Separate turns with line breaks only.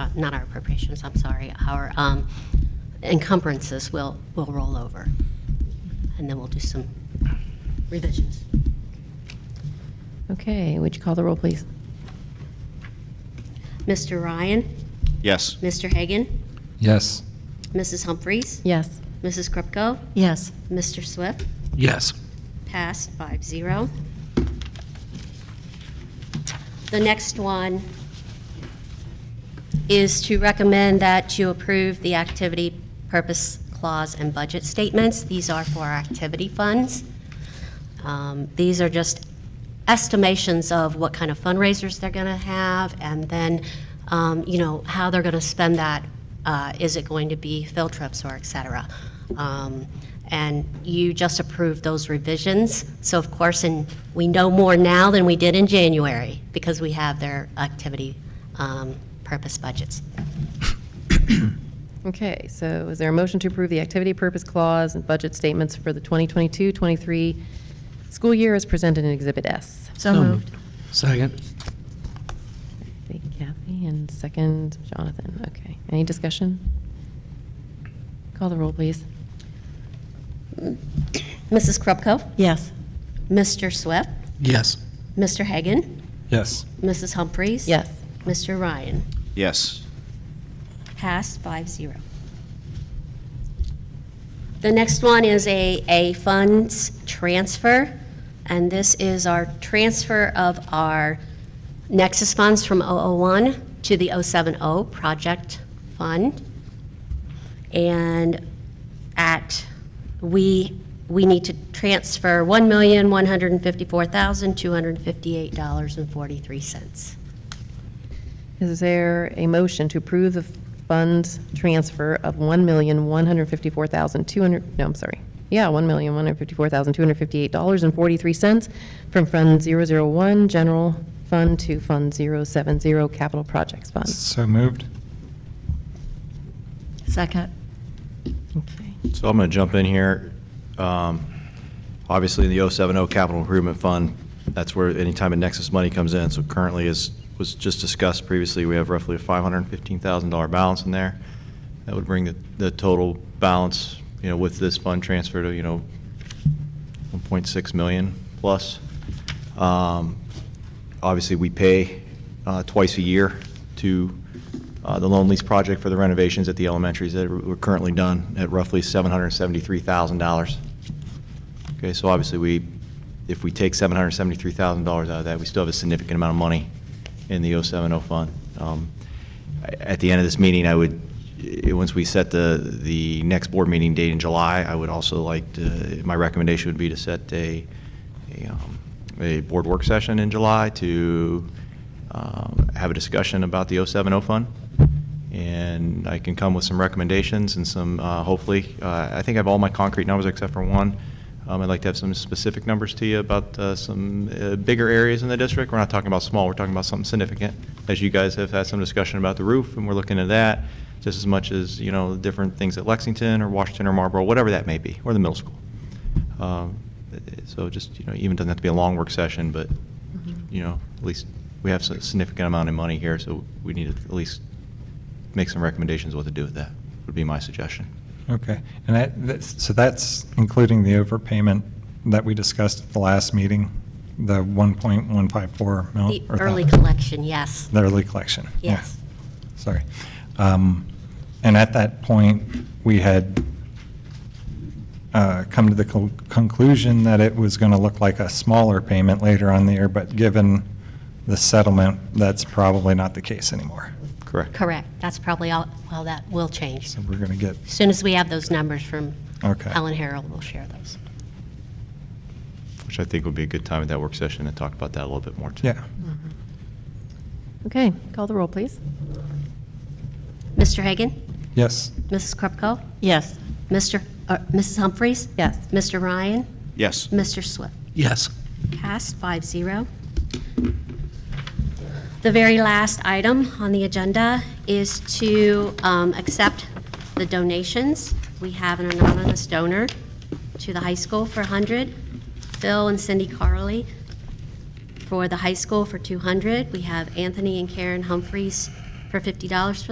uh, not our appropriations, I'm sorry, our um, encumbrances will, will roll over. And then we'll do some revisions.
Okay, would you call the roll, please?
Mr. Ryan,
Yes.
Mr. Hagan,
Yes.
Mrs. Humphries,
Yes.
Mrs. Krupko,
Yes.
Mr. Swift,
Yes.
passed five zero. The next one is to recommend that you approve the activity purpose clause and budget statements. These are for our activity funds. Um, These are just estimations of what kind of fundraisers they're going to have, and then, um, you know, how they're going to spend that. Uh, Is it going to be field trips or et cetera? Um, And you just approved those revisions, so of course, and we know more now than we did in January, because we have their activity um, purpose budgets.
Okay, so is there a motion to approve the activity purpose clause and budget statements for the 2022-23 school year as presented in Exhibit S?
So moved.
Second.
Thank you, Kathy, and second Jonathan. Okay, any discussion? Call the roll, please.
Mrs. Krupko?
Yes.
Mr. Swift?
Yes.
Mr. Hagan?
Yes.
Mrs. Humphries?
Yes.
Mr. Ryan?
Yes.
Passed five zero. The next one is a, a funds transfer, and this is our transfer of our Nexus funds from 001 to the 070 project fund. And at, we, we need to transfer $1,154,258.43.
Is there a motion to approve the fund transfer of $1,154,200, no, I'm sorry. Yeah, $1,154,258.43 from Fund 001 General Fund to Fund 070 Capital Projects Fund.
So moved.
Second.
Okay.
So I'm going to jump in here. Um, Obviously, in the 070 Capital Improvement Fund, that's where any time a Nexus money comes in. So currently, as was just discussed previously, we have roughly a $515,000 balance in there. That would bring the, the total balance, you know, with this fund transfer to, you know, 1.6 million plus. Um, Obviously, we pay uh, twice a year to uh, the loan lease project for the renovations at the elementaries that were currently done at roughly $773,000. Okay, so obviously, we, if we take $773,000 out of that, we still have a significant amount of money in the 070 fund. Um, I- At the end of this meeting, I would, eh, once we set the, the next board meeting date in July, I would also like to, my recommendation would be to set a, a, um, a board work session in July to um, have a discussion about the 070 fund. And I can come with some recommendations and some, uh, hopefully, uh, I think I have all my concrete numbers except for one. Um, I'd like to have some specific numbers to you about uh, some uh, bigger areas in the district. We're not talking about small, we're talking about something significant. As you guys have had some discussion about the roof, and we're looking at that just as much as, you know, different things at Lexington or Washington or Marlboro, whatever that may be, or the middle school. Um, So just, you know, even doesn't have to be a long work session, but, you know, at least we have a significant amount of money here, so we need to at least make some recommendations what to do with that, would be my suggestion.
Okay. And that, that's- so that's including the overpayment that we discussed at the last meeting, the 1.154 mil.
The
or
early collection, yes.
The early collection. yeah.
Yes.
Sorry. Um, And at that point, we had uh, come to the col- conclusion that it was going to look like a smaller payment later on in the year, but given the settlement, that's probably not the case anymore.
Correct?
Correct. That's probably all, well, that will change.
So we're going to get,
As soon as we have those numbers from
Okay.
Helen Harold, we'll share those.
Which I think would be a good time at that work session to talk about that a little bit more, too.
yeah.
Okay, call the roll, please.
Mr. Hagan?
Yes.
Mrs. Krupko?
Yes.
Mr., uh, Mrs. Humphries?
Yes.
Mr. Ryan?
Yes.
Mr. Swift?
Yes.
Passed five zero. The very last item on the agenda is to um, accept the donations. We have an anonymous donor to the high school for 100, Phil and Cindy Carley for the high school for 200. We have Anthony and Karen Humphreys for $50 for